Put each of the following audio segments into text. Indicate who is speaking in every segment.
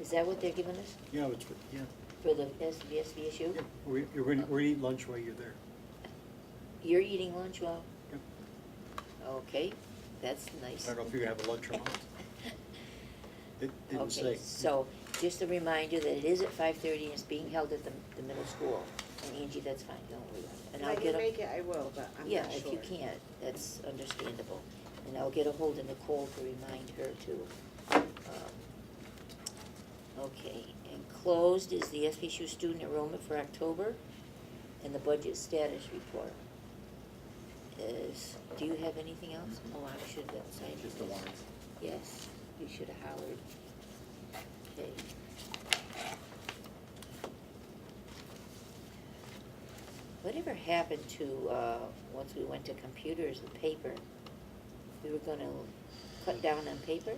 Speaker 1: Is that what they're giving us
Speaker 2: Yeah, it's, yeah,
Speaker 1: for the SVSU?
Speaker 2: yeah, we, you're gonna, we're gonna eat lunch while you're there.
Speaker 1: You're eating lunch while,
Speaker 2: Yep.
Speaker 1: okay, that's nice.
Speaker 2: I don't know if you're gonna have a lunch or not. It didn't say.
Speaker 1: Okay, so just a reminder that it is at five thirty and it's being held at the, the middle school. And Angie, that's fine, don't worry about it. And
Speaker 3: If
Speaker 1: I'll
Speaker 3: I
Speaker 1: get
Speaker 3: can
Speaker 1: a-
Speaker 3: make it, I will, but I'm
Speaker 1: Yeah,
Speaker 3: not sure.
Speaker 1: if you can't, that's understandable. And I'll get a hold of Nicole to remind her to. um, Okay, and closed is the SBSU student enrollment for October and the budget status report. Is, do you have anything else? Oh, I should have cited
Speaker 4: Just the
Speaker 1: this.
Speaker 4: warrants.
Speaker 1: Yes, you should have hollered. Okay. Whatever happened to, uh, once we went to computers and paper? We were gonna cut down on paper?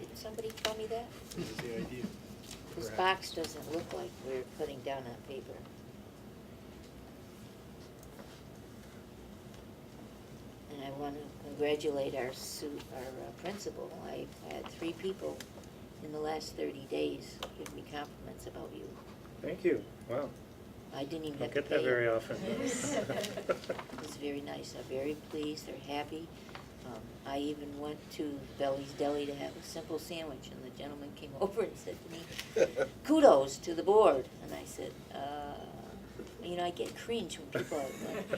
Speaker 1: Didn't somebody tell me that?
Speaker 2: That was the idea.
Speaker 1: This
Speaker 2: Perhaps.
Speaker 1: box doesn't look like we're cutting down on paper. And I want to congratulate our su- our uh, principal. I had three people in the last thirty days give me compliments about you.
Speaker 5: Thank you. Wow.
Speaker 1: I didn't even
Speaker 5: Don't
Speaker 1: have to
Speaker 5: get
Speaker 1: pay
Speaker 5: that very
Speaker 1: you.
Speaker 5: often.
Speaker 1: It's very nice. They're very pleased. They're happy. Um, I even went to Belly's Deli to have a simple sandwich, and the gentleman came over and said to me, kudos to the board. And I said, uh, you know, I get cringe when people, are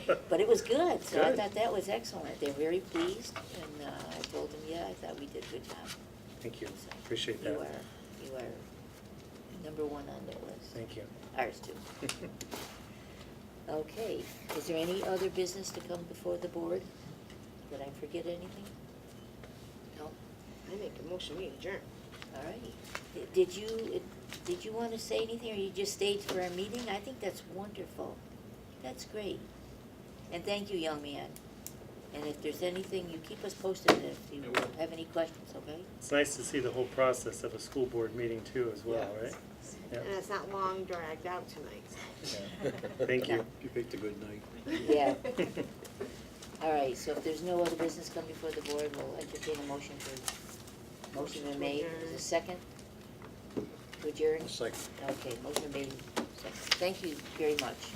Speaker 1: like- but it was good, so I
Speaker 5: Good.
Speaker 1: thought that was excellent. They're very pleased, and uh, I told them, yeah, I thought we did a good job.
Speaker 5: Thank you.
Speaker 1: So
Speaker 5: Appreciate that.
Speaker 1: You are, you are number one on their list.
Speaker 5: Thank you.
Speaker 1: Ours too. Okay, is there any other business to come before the board? Did I forget anything? No?
Speaker 3: I make a motion, we adjourn.
Speaker 1: All right. Did you, did you want to say anything, or you just stayed for our meeting? I think that's wonderful. That's great. And thank you, young man. And if there's anything, you keep us posted if you
Speaker 4: I will.
Speaker 1: have any questions, okay?
Speaker 5: It's nice to see the whole process of a school board meeting too as well,
Speaker 4: Yeah.
Speaker 5: right? Yeah.
Speaker 3: And it's not long dragged out tonight.
Speaker 5: Thank you.
Speaker 2: You picked a good night.
Speaker 1: Yeah. All right, so if there's no other business come before the board, we'll entertain a motion for, motion been made, is a second? To adjourn?
Speaker 2: I'll second.
Speaker 1: Okay, motion made, second. Thank you very much.